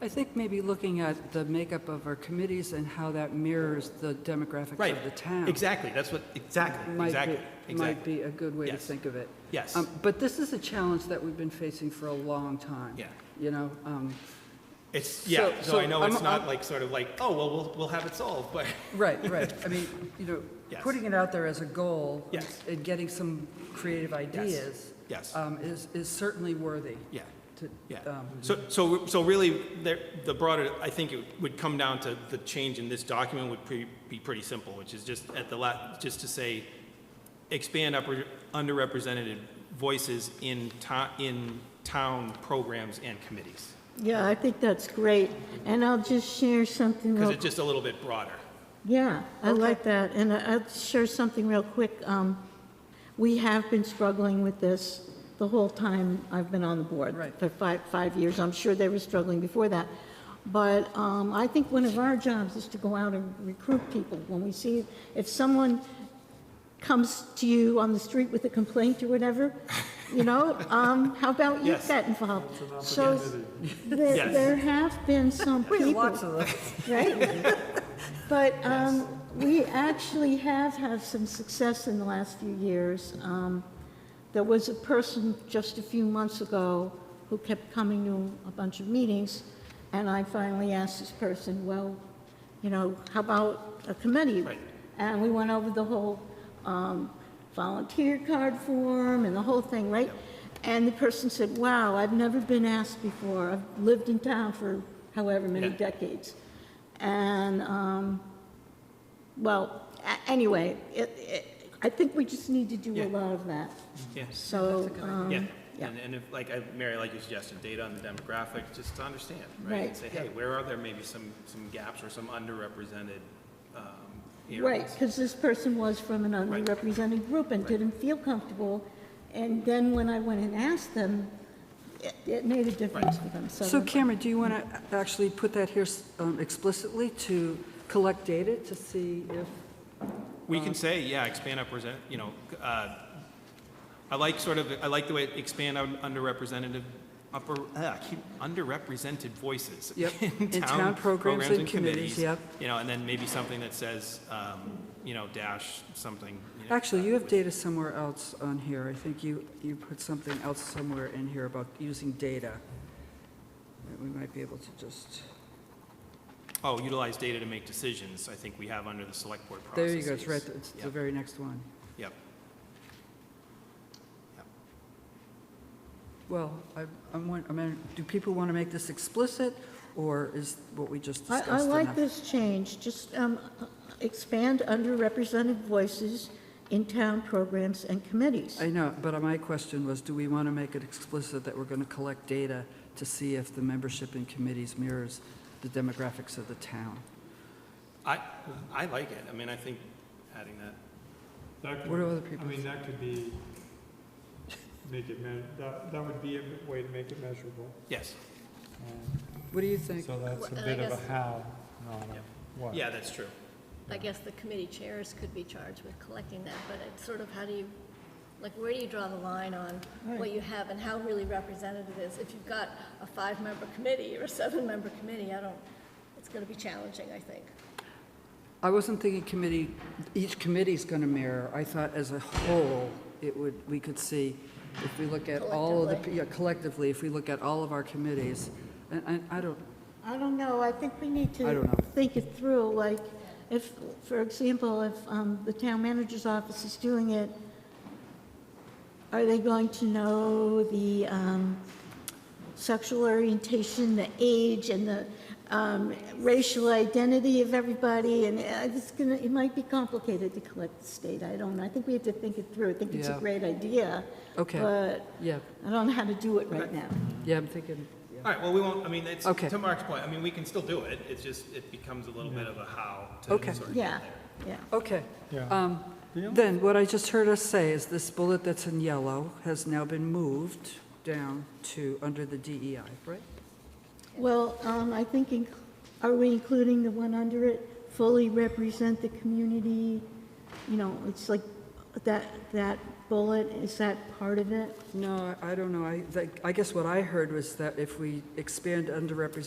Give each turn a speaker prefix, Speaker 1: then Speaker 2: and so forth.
Speaker 1: I think maybe looking at the makeup of our committees and how that mirrors the demographics
Speaker 2: Right.
Speaker 1: of the town.
Speaker 2: Exactly, that's what, exactly,
Speaker 1: might be-
Speaker 2: exactly,
Speaker 1: Might
Speaker 2: exactly.
Speaker 1: be a good way to
Speaker 2: Yes.
Speaker 1: think of it.
Speaker 2: Yes.
Speaker 1: Um, But this is a challenge that we've been facing for a long time.
Speaker 2: Yeah.
Speaker 1: You know, um,
Speaker 2: It's, yeah,
Speaker 1: So-
Speaker 2: so I
Speaker 1: so
Speaker 2: know it's
Speaker 1: I'm-
Speaker 2: not
Speaker 1: I'm-
Speaker 2: like, sort of like, oh, well, we'll, we'll have it solved, but,
Speaker 1: right, right. I mean, you know,
Speaker 2: Yes.
Speaker 1: putting it out there as a goal.
Speaker 2: Yes.
Speaker 1: And getting some creative ideas.
Speaker 2: yes.
Speaker 1: um, Is, is certainly worthy
Speaker 2: yeah,
Speaker 1: to.
Speaker 2: yeah.
Speaker 1: um,
Speaker 2: So, so, so really, the, the broader, I think it would come down to the change in this document would pre- be pretty simple, which is just at the la, just to say, expand upper, underrepresented voices in town, in town programs and committees.
Speaker 3: Yeah, I think that's great. And I'll just share something real
Speaker 2: Because it's just a little bit broader.
Speaker 3: Yeah, I
Speaker 1: Okay.
Speaker 3: like that, and I- I'll share something real quick. Um, We have been struggling with this the whole time I've been on the board.
Speaker 1: Right.
Speaker 3: For five, five years, I'm sure they were struggling before that. But um, I think one of our jobs is to go out and recruit people when we see, if someone comes to you on the street with a complaint or whatever, you know, um, how about you
Speaker 2: Yes.
Speaker 3: get involved? So there
Speaker 2: Yes.
Speaker 3: there have been some
Speaker 1: we have
Speaker 3: people
Speaker 1: Lots of those.
Speaker 3: right? But um, we actually have had some success in the last few years. Um, There was a person just a few months ago who kept coming to a bunch of meetings, and I finally asked this person, well, you know, how about a committee?
Speaker 2: Right.
Speaker 3: And we went over the whole um, volunteer card form and the whole thing, right? And the person said, wow, I've never been asked before. I've lived in town for however many
Speaker 2: Yeah.
Speaker 3: decades. And, um, well, a- anyway, it, it, I think we just need to do
Speaker 2: Yeah.
Speaker 3: a lot of that.
Speaker 2: Yes.
Speaker 3: So, um,
Speaker 2: Yeah,
Speaker 3: yeah.
Speaker 2: and, and if, like, I- Mary, like your suggestion, data on the demographic, just to understand, right?
Speaker 3: Right.
Speaker 2: And say, hey, where are there maybe some, some gaps or some underrepresented um, areas?
Speaker 3: Right, because this person was from an
Speaker 2: Right.
Speaker 3: underrepresented group and didn't feel comfortable. And then when I went and asked them, it, it made a difference for them,
Speaker 1: So Cameron, do you want to actually put that here um, explicitly to collect data to see if,
Speaker 2: We can say, yeah, expand represent. you know, uh, I like sort of, I like the way it expand on underrepresented, upper, uh, keep, underrepresented voices.
Speaker 1: Yep. In town programs and committees, yep.
Speaker 2: You know, and then maybe something that says, um, you know, dash something. you know,
Speaker 1: actually,
Speaker 2: uh,
Speaker 1: you have
Speaker 2: with-
Speaker 1: data somewhere else on here. I think you, you put something else somewhere in here about using data. that We might be able to just,
Speaker 2: Oh, utilize data to make decisions, I think we have under the select board
Speaker 1: there
Speaker 2: processes.
Speaker 1: you go, it's right, it's the
Speaker 2: Yep,
Speaker 1: very next one.
Speaker 2: Yep. Yep.
Speaker 1: Well, I, I'm, won- I mean, do people want to make this explicit, or is what we just
Speaker 3: I,
Speaker 1: discussed
Speaker 3: I
Speaker 1: enough?
Speaker 3: like this change, just um, expand underrepresented voices in town programs and committees.
Speaker 1: I know, but my question was, do we want to make it explicit that we're going to collect data to see if the membership in committees mirrors the demographics of the town?
Speaker 2: I, I like it, I mean, I think adding that,
Speaker 4: That could-
Speaker 1: What do other people
Speaker 4: I mean,
Speaker 1: think?
Speaker 4: that could be, make it, me- that, that would be a me- way to make it measurable.
Speaker 2: yes,
Speaker 4: Um,
Speaker 1: What do you think?
Speaker 4: So that's a
Speaker 5: Well, I
Speaker 4: bit of a
Speaker 5: guess-
Speaker 4: how, not
Speaker 2: Yep.
Speaker 4: a what.
Speaker 2: yeah, that's true.
Speaker 5: I guess the committee chairs could be charged with collecting that, but it's sort of how do you, like, where do you draw the line on what you have and how really representative it is? If you've got a five-member committee or a seven-member committee, I don't, it's gonna be challenging, I think.
Speaker 1: I wasn't thinking committee, each committee's going to mirror. I thought as a whole, it would, we could see, if we look at all of the,
Speaker 5: Collectively.
Speaker 1: yeah, collectively, if we look at all of our committees, and, and I don't,
Speaker 3: I don't know, I think we need
Speaker 1: I don't
Speaker 3: to
Speaker 1: know.
Speaker 3: think it through, like, if, for example, if um, the town manager's office is doing it, are they going to know the um, sexual orientation, the age, and the um, racial identity of everybody? And uh, it's gonna, it might be complicated to collect this data, I don't know. I think we have to think it through. I think it's
Speaker 1: Yeah.
Speaker 3: a great idea.
Speaker 1: Okay.
Speaker 3: But
Speaker 1: yeah,
Speaker 3: I don't know how to do it right now.
Speaker 1: yeah, I'm thinking, yeah.
Speaker 2: All right, well, we won't, I mean, it's,
Speaker 1: Okay.
Speaker 2: to Mark's point, I mean, we can still do it, it's just, it becomes a little bit of a how to sort
Speaker 1: Okay.
Speaker 2: of get
Speaker 3: Yeah,
Speaker 2: there.
Speaker 3: yeah.
Speaker 1: Okay.
Speaker 4: Yeah.
Speaker 1: Um,
Speaker 4: Yeah.
Speaker 1: Then, what I just heard us say is this bullet that's in yellow has now been moved down to, under the DEI, right?
Speaker 3: Well, um, I think, inc- are we including the one under it, fully represent the community? You know, it's like, that, that bullet, is that part of it?
Speaker 1: No, I I don't know. I, that- I guess what I heard was that if we expand underrepresented